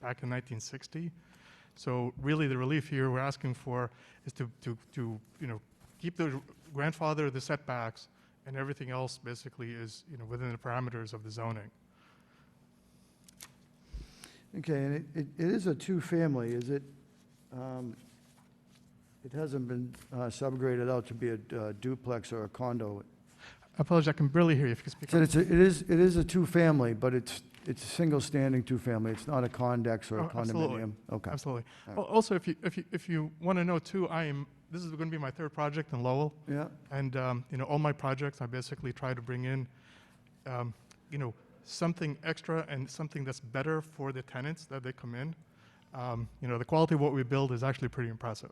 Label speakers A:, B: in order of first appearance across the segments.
A: back in 1960. So really, the relief here we're asking for is to, to, to you know, keep the grandfather the setbacks, and everything else basically is you know within the parameters of the zoning.
B: Okay, and it, it- it is a two-family, is it, um, it hasn't been uh, subgraded out to be a uh, duplex or a condo.
A: I apologize, I can barely hear you. If you could speak
B: So
A: up.
B: it's, a- it is, it is a two-family, but it's, it's a single-standing two-family, it's not a condex or a
A: Oh, absolutely.
B: condominium? Okay,
A: Absolutely.
B: All right.
A: Al- Also, if you if you if you want to know too, I am. This is going to be my third project in Lowell.
B: yeah,
A: And um, you know, all my projects, I basically try to bring in, um, you know, something extra and something that's better for the tenants that they come in. Um, you know, the quality of what we build is actually pretty impressive.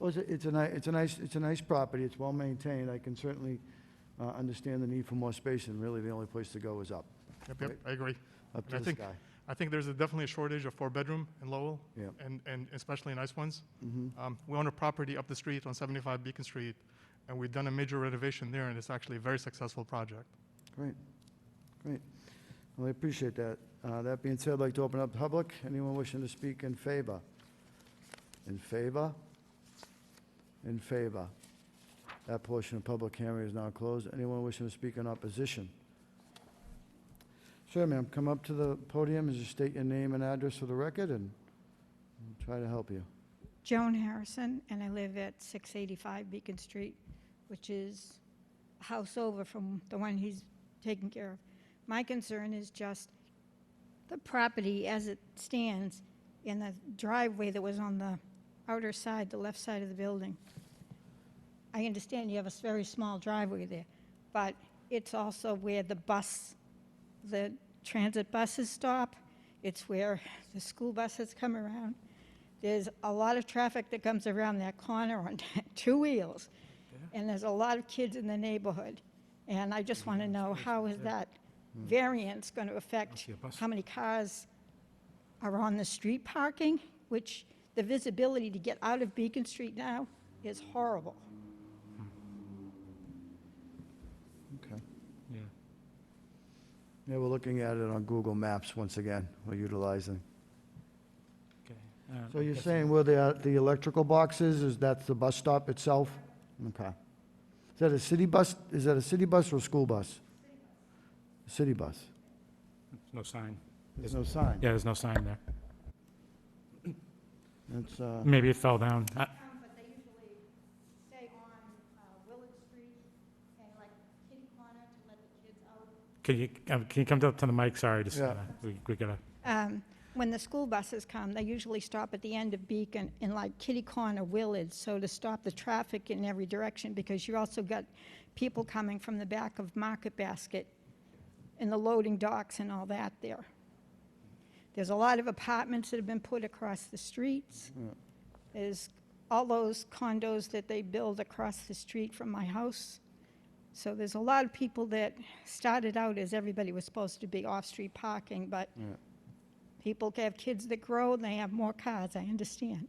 B: well, it's, a- it's a ni, it's a nice, it's a nice property, it's well-maintained, I can certainly uh, understand the need for more space, and really the only place to go is up,
A: Yep, yep,
B: Right.
A: I agree.
B: up
A: And I
B: to the
A: think-
B: sky.
A: I think there's a, definitely a shortage of four-bedroom in Lowell,
B: Yeah.
A: and and especially nice ones.
B: Mhm.
A: Um, we own a property up the street on 75 Beacon Street, and we've done a major renovation there, and it's actually a very successful project.
B: Great, great. Well, I appreciate that. Uh, That being said, I'd like to open up public. Anyone wishing to speak in favor? In favor? In favor? That portion of public hearing is now closed. Anyone wishing to speak in opposition? Sure, ma'am, come up to the podium and just state your name and address for the record, and we'll try to help you.
C: Joan Harrison, and I live at 685 Beacon Street, which is a house over from the one he's taking care of. My concern is just the property as it stands in the driveway that was on the outer side, the left side of the building. I understand you have a s- very small driveway there, but it's also where the bus, the transit buses stop. It's where the school buses come around. There's a lot of traffic that comes around that corner on two wheels, and there's a lot of kids in the neighborhood. And I just want to know, how is that variance going to affect how many cars are on the street parking, which the visibility to get out of Beacon Street now is horrible.
B: Okay. Yeah, we're looking at it on Google Maps once again. We're utilizing. So you're saying where the, uh, the electrical box is, is that's the bus stop itself? Okay. Is that a city bus, is that a city bus or a school bus? City bus.
D: No sign.
B: There's no sign.
D: Yeah, there's no sign there.
B: That's, uh,
D: Maybe it fell down. I-
C: Um, But they usually stay on Willard Street and like kitty corner to let the kids out.
D: Can you, um, can you come up to the mic? Sorry, just,
B: Yeah.
D: uh, we we gotta,
C: um, when the school buses come, they usually stop at the end of Beacon in like Kitty Corner, Willard, so to stop the traffic in every direction, because you also got people coming from the back of Market Basket and the loading docks and all that there. There's a lot of apartments that have been put across the streets. There's all those condos that they build across the street from my house. So there's a lot of people that started out as everybody was supposed to be off-street parking, but
B: yeah.
C: People have kids that grow and they have more cars, I understand.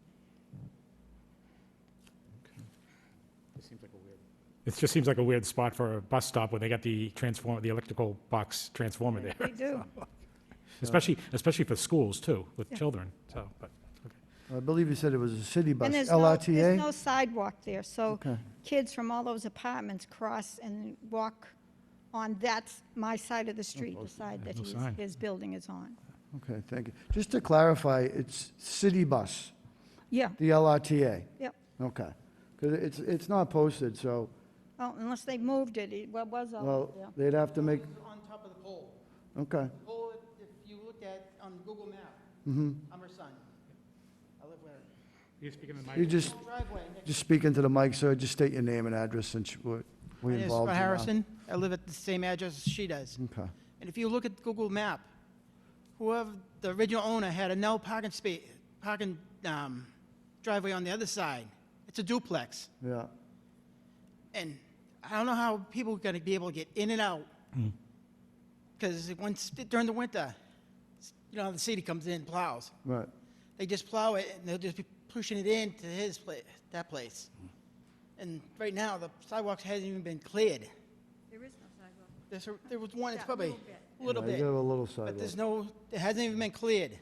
D: it just seems like a weird spot for a bus stop when they got the transformer, the electrical box transformer there,
C: They do.
D: especially, especially for schools too, with
C: Yeah.
D: children, so, but, okay.
B: I believe you said it was a city bus,
C: And there's no, there's
B: LRTA?
C: no sidewalk there, so
B: Okay.
C: kids from all those apartments cross and walk on that's my side of the street, the side that
D: no
C: his,
D: sign.
C: his building is on.
B: Okay, thank you. Just to clarify, it's city bus,
C: Yeah,
B: the LRTA?
C: Yep.
B: Okay. Because it's, it's not posted, so,
C: oh, unless they moved it, it wa- was all,
B: well,
C: yeah.
B: they'd have to make,
E: On top of the pole.
B: okay,
E: The pole, if you look at on Google Map,
B: mhm.
E: I'm her son. I live where?
D: You speaking in the
B: You just,
E: Driveway. next-
B: just speak into the mic, sir, just state your name and address since we're
E: My
B: we
E: name is
B: involved. uh, Mm-hmm. you now.
E: Scott Harrison. I live at the same address as she does.
B: Okay.
E: And if you look at Google Map, whoever, the original owner had a no parking space, parking um, driveway on the other side. It's a duplex.
B: Yeah,
E: And I don't know how people are going to be able to get in and out. Because once, during the winter, s- you know, the city comes in and plows.
B: right.
E: they just plow it and they'll just be pushing it into his place, that place. And right now, the sidewalk hasn't even been cleared.
C: There is no sidewalk.
E: There's, a- there was one, it's
C: Yeah,
E: probably
C: little bit.
E: a little
B: Yeah, You have
E: bit,
B: a little
E: but
B: sidewalk.
E: there's no, it hasn't even been cleared.